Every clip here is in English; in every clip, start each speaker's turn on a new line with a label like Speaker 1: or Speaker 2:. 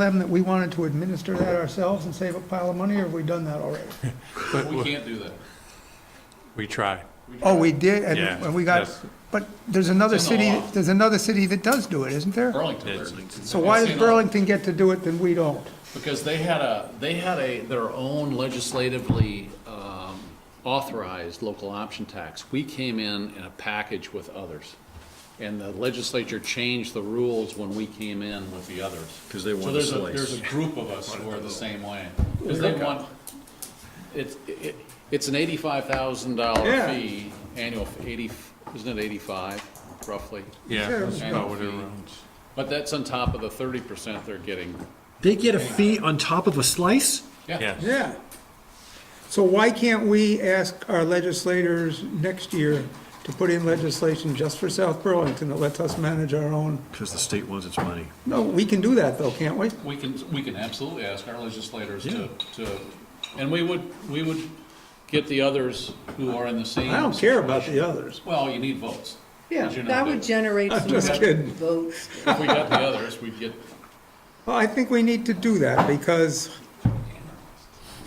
Speaker 1: them that we wanted to administer that ourselves and save a pile of money, or have we done that already?
Speaker 2: But
Speaker 3: We
Speaker 2: we-
Speaker 3: can't do that.
Speaker 2: we try.
Speaker 1: Oh, we did, and-
Speaker 2: Yeah,
Speaker 1: and we got,
Speaker 2: yes.
Speaker 1: but there's another
Speaker 3: It's in the
Speaker 1: city,
Speaker 3: law.
Speaker 1: there's another city that does do it, isn't there?
Speaker 3: Burlington. does.
Speaker 1: So why
Speaker 3: It's
Speaker 1: does
Speaker 3: in all-
Speaker 1: Burlington get to do it and we don't?
Speaker 3: Because they had a, they had a, their own legislatively um, authorized local option tax. We came in in a package with others. And the legislature changed the rules when we came in with the others. Because they want a slice. There's a group of us who are the same way. Because they want, it's, it- it's an eighty-five thousand dollar
Speaker 1: Yeah.
Speaker 3: fee, annual, f- eighty, isn't it eighty-five roughly?
Speaker 2: Yeah.
Speaker 1: Sure.
Speaker 2: that's about what it
Speaker 3: Annual fee.
Speaker 2: runs.
Speaker 3: But that's on top of the thirty percent they're getting.
Speaker 4: They get a fee on top of a slice?
Speaker 2: Yes.
Speaker 1: Yeah. So why can't we ask our legislators next year to put in legislation just for South Burlington that lets us manage our own?
Speaker 4: Because the state wants its money.
Speaker 1: No, we can do that though, can't we?
Speaker 3: We can, we can absolutely ask our legislators
Speaker 4: Yeah.
Speaker 3: to, to, and we would, we would get the others who are in the same.
Speaker 1: I don't care about the others.
Speaker 3: Well, you need votes.
Speaker 5: Yeah,
Speaker 3: As you know,
Speaker 5: that would
Speaker 3: but-
Speaker 5: generate
Speaker 1: I'm
Speaker 5: some
Speaker 1: just kidding.
Speaker 5: votes.
Speaker 3: If we got the others, we'd get,
Speaker 1: Well, I think we need to do that because,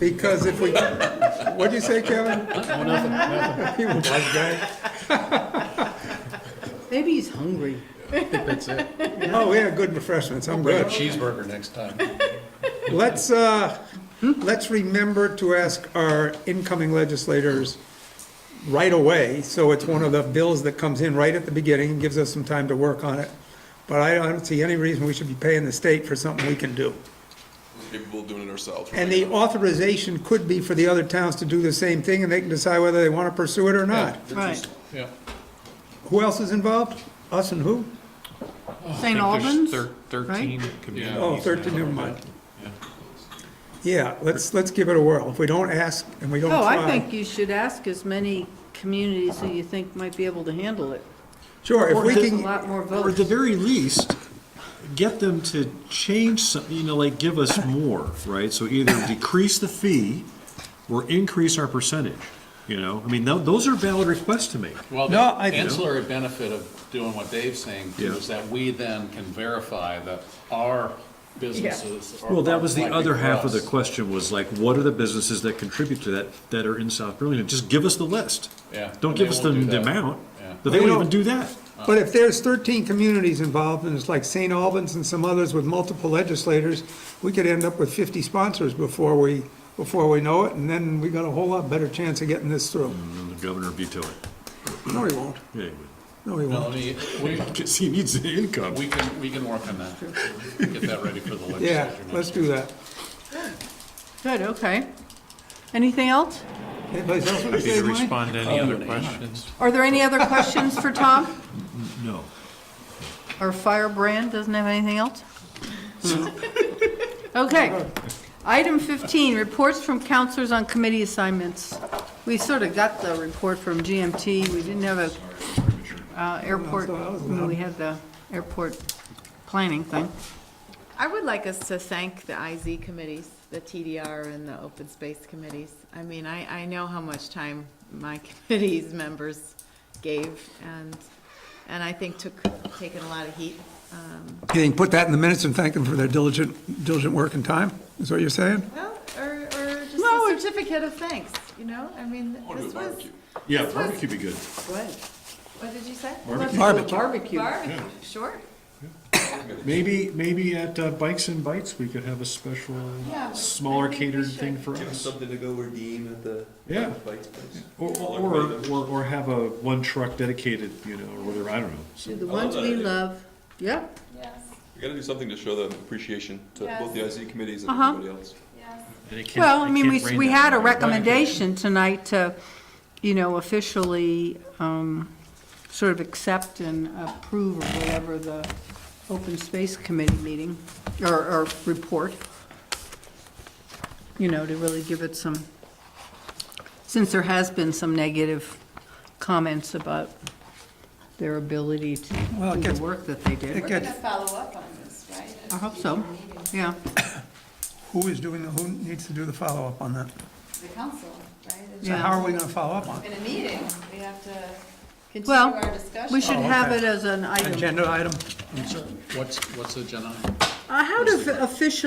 Speaker 1: because if we, what'd you say, Kevin? He was like that.
Speaker 5: Maybe he's hungry.
Speaker 1: Oh, we had good refreshments, I'm
Speaker 3: a
Speaker 1: good.
Speaker 3: cheeseburger next time.
Speaker 1: Let's, uh, let's remember to ask our incoming legislators right away, so it's one of the bills that comes in right at the beginning, and gives us some time to work on it. But I don't see any reason we should be paying the state for something we can do.
Speaker 6: capable of doing it ourselves.
Speaker 1: And the authorization could be for the other towns to do the same thing, and they can decide whether they want to pursue it or not.
Speaker 5: Right.
Speaker 3: Yeah.
Speaker 1: Who else is involved? Us and who?
Speaker 5: St.
Speaker 2: I think
Speaker 5: Albans?
Speaker 2: there's thir- Thirteen
Speaker 3: Yeah.
Speaker 2: communities.
Speaker 1: Oh, 13, never mind. Yeah, let's, let's give it a whirl. If we don't ask and we don't
Speaker 5: Oh,
Speaker 1: try.
Speaker 5: I think you should ask as many communities that you think might be able to handle it.
Speaker 1: Sure, if
Speaker 4: Or
Speaker 1: we
Speaker 4: the-
Speaker 5: A
Speaker 1: can,
Speaker 5: lot more
Speaker 4: Or at the
Speaker 5: votes.
Speaker 4: very least, get them to change some, you know, like give us more, right? So either decrease the fee or increase our percentage, you know? I mean, tho- those are valid requests to make.
Speaker 3: Well, the
Speaker 1: No, I-
Speaker 3: ancillary benefit of doing what Dave's saying too
Speaker 4: Yeah.
Speaker 3: is that we then can verify that our businesses are.
Speaker 4: Well, that was the
Speaker 3: likely
Speaker 4: other
Speaker 3: for
Speaker 4: half of the
Speaker 3: us.
Speaker 4: question was like, what are the businesses that contribute to that, that are in South Burlington? Just give us the list.
Speaker 3: Yeah,
Speaker 4: Don't
Speaker 3: they
Speaker 4: give us the
Speaker 3: won't do
Speaker 4: the
Speaker 3: that.
Speaker 4: amount,
Speaker 3: Yeah.
Speaker 4: but they
Speaker 1: Well,
Speaker 4: won't
Speaker 1: you
Speaker 4: even do that.
Speaker 1: but if there's 13 communities involved, and it's like St. Albans and some others with multiple legislators, we could end up with 50 sponsors before we, before we know it, and then we got a whole lot better chance of getting this through.
Speaker 4: And the governor vetoed it.
Speaker 1: No, he won't.
Speaker 4: Yeah, he
Speaker 1: No, he
Speaker 3: Well, I
Speaker 1: won't.
Speaker 3: mean, we,
Speaker 4: would. 'Cause he needs the income.
Speaker 3: we can, we can work on that. Get that ready for the legislature.
Speaker 1: Yeah,
Speaker 3: next
Speaker 1: let's
Speaker 3: year.
Speaker 1: do that.
Speaker 5: Good, okay. Anything else?
Speaker 1: Anybody else want to
Speaker 2: Happy
Speaker 1: say,
Speaker 2: to
Speaker 1: Mike?
Speaker 2: respond to any other questions.
Speaker 5: Are there any other questions for Tom?
Speaker 4: No.
Speaker 5: Our firebrand doesn't have anything else? Okay. Item 15, reports from counselors on committee assignments. We sort of got the report from GMT. We didn't have a uh, airport, when we had the airport planning thing.
Speaker 7: I would like us to thank the IZ committees, the TDR and the open space committees. I mean, I, I know how much time my committee's members gave and, and I think took, taken a lot of heat. um,
Speaker 1: You can put that in the minutes and thank them for their diligent, diligent work and time, is what you're saying?
Speaker 7: Well, or, or just
Speaker 5: No,
Speaker 7: a
Speaker 5: it-
Speaker 7: certificate of thanks, you know? I mean,
Speaker 6: I'll do a
Speaker 7: this was,
Speaker 6: barbecue.
Speaker 4: Yeah, barbecue would be good.
Speaker 7: what did you say?
Speaker 1: Barbecue.
Speaker 5: Barbecue.
Speaker 7: Barbecue, sure.
Speaker 4: Maybe, maybe at uh, Bikes and Bites, we could have a special,
Speaker 7: Yeah, I
Speaker 4: smaller
Speaker 7: think we
Speaker 4: catered
Speaker 7: should.
Speaker 4: thing for
Speaker 8: Give them
Speaker 4: us.
Speaker 8: something to go redeem at the
Speaker 4: Yeah.
Speaker 8: bike's place.
Speaker 4: Or, or, or- or have a one truck dedicated, you know, or whatever, I don't know.
Speaker 5: To
Speaker 4: So-
Speaker 5: the ones we love. Yep.
Speaker 7: Yes,
Speaker 6: We gotta do something to show them appreciation to both the IZ committees and
Speaker 5: Uh-huh.
Speaker 6: everybody else.
Speaker 7: yes.
Speaker 4: and it can't-
Speaker 5: Well, I
Speaker 4: it
Speaker 5: mean,
Speaker 4: can't
Speaker 5: we,
Speaker 4: rain
Speaker 5: we
Speaker 4: that
Speaker 5: had a
Speaker 4: night.
Speaker 5: recommendation tonight to, you know, officially um, sort of accept and approve or whatever the open space committee meeting, or, or report. You know, to really give it some, since there has been some negative comments about their ability to
Speaker 1: Well, it
Speaker 5: do
Speaker 1: gets-
Speaker 5: the work that they did.
Speaker 1: It gets,
Speaker 7: follow up on this, right?
Speaker 5: I hope so, yeah.
Speaker 1: who is doing, the who needs to do the follow-up on that?
Speaker 7: The council, right?
Speaker 1: So how are we going to follow up on it?
Speaker 7: In a meeting, we have to continue
Speaker 5: Well,
Speaker 7: our discussion.
Speaker 5: we should
Speaker 1: Oh,
Speaker 5: have
Speaker 1: okay.
Speaker 5: it as an item.
Speaker 1: Agenda item?
Speaker 3: What's, what's the agenda?
Speaker 5: Uh, How do official